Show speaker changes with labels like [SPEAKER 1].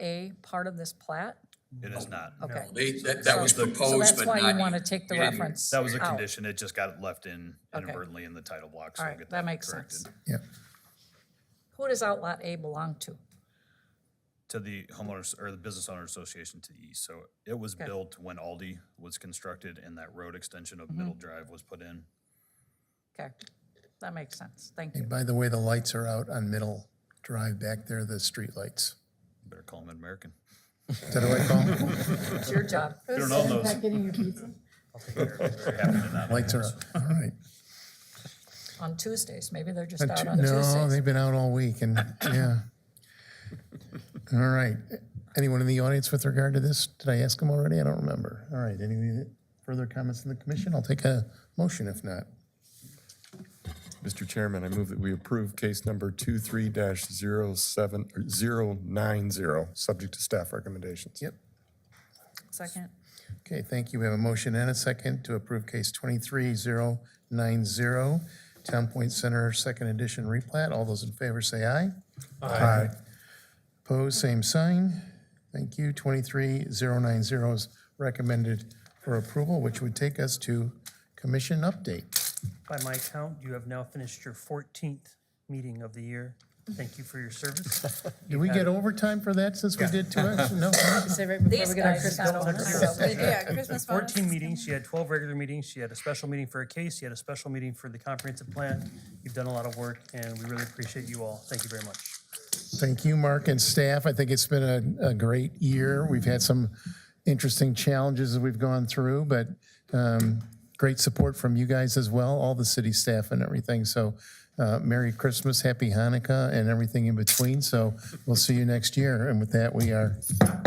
[SPEAKER 1] A part of this plat?
[SPEAKER 2] It is not.
[SPEAKER 1] Oh, Okay.
[SPEAKER 3] They, that, that was
[SPEAKER 1] So-
[SPEAKER 3] proposed, but
[SPEAKER 1] So that's why you
[SPEAKER 3] not
[SPEAKER 1] want to
[SPEAKER 3] yet.
[SPEAKER 1] take the
[SPEAKER 3] We didn't-
[SPEAKER 1] reference
[SPEAKER 2] That was a
[SPEAKER 1] out.
[SPEAKER 2] condition. It just got left in
[SPEAKER 1] Oh. Okay.
[SPEAKER 2] inadvertently in the title block, so
[SPEAKER 1] All
[SPEAKER 2] we'll
[SPEAKER 1] right,
[SPEAKER 2] get that
[SPEAKER 1] that makes sense.
[SPEAKER 2] corrected.
[SPEAKER 4] Yeah.
[SPEAKER 1] Who does outlot A belong to?
[SPEAKER 2] To the homeowners, or the Business Owner Association to the east. So it was
[SPEAKER 1] Okay.
[SPEAKER 2] built when Aldi was constructed and that road extension of
[SPEAKER 1] Mm-hmm.
[SPEAKER 2] Middle Drive was put in.
[SPEAKER 1] Okay, that makes sense. Thank
[SPEAKER 4] Hey,
[SPEAKER 1] you.
[SPEAKER 4] by the way, the lights are out on Middle Drive back there, the street lights.
[SPEAKER 2] Better call them American.
[SPEAKER 4] Is that what I call 'em?
[SPEAKER 1] It's your job.
[SPEAKER 2] We don't own those.
[SPEAKER 5] Not getting your pizza?
[SPEAKER 2] Very happy to not own
[SPEAKER 4] Lights are
[SPEAKER 2] those.
[SPEAKER 4] out, all right.
[SPEAKER 1] On Tuesdays, maybe they're just out on
[SPEAKER 4] No,
[SPEAKER 1] Tuesdays.
[SPEAKER 4] they've been out all week and, yeah. All right. Anyone in the audience with regard to this? Did I ask them already? I don't remember. All right, any further comments in the commission? I'll take a motion if not.
[SPEAKER 6] Mr. Chairman, I move that we approve case number 23-07, or 090, subject to staff recommendations.
[SPEAKER 4] Yep.
[SPEAKER 1] Second,
[SPEAKER 4] Okay, thank you. We have a motion and a second to approve case 23090, Town Point Center Second Edition replat. All those in favor say aye. Aye. Opposed, same sign. Thank you. 23090 is recommended for approval, which would take us to commission update.
[SPEAKER 7] By my count, you have now finished your 14th meeting of the year. Thank you for your service.
[SPEAKER 4] Did we get overtime for that since we did two? hours? No.
[SPEAKER 5] Say right before
[SPEAKER 1] these
[SPEAKER 5] we get our
[SPEAKER 1] guys
[SPEAKER 5] Christmas.
[SPEAKER 1] got
[SPEAKER 5] bonus.
[SPEAKER 1] overtime.
[SPEAKER 8] Yeah, Christmas bonus.
[SPEAKER 7] 14 meetings, you had 12 regular meetings, you had a special meeting for a case, you had a special meeting for the comprehensive plan. You've done a lot of work, and we really appreciate you all. Thank you very much.
[SPEAKER 4] Thank you, Mark and staff. I think it's been a, a great year. We've had some interesting challenges that we've gone through, but um, great support from you guys as well, all the city staff and everything. So uh, Merry Christmas, Happy Hanukkah, and everything in between. So we'll see you next year. And with that, we are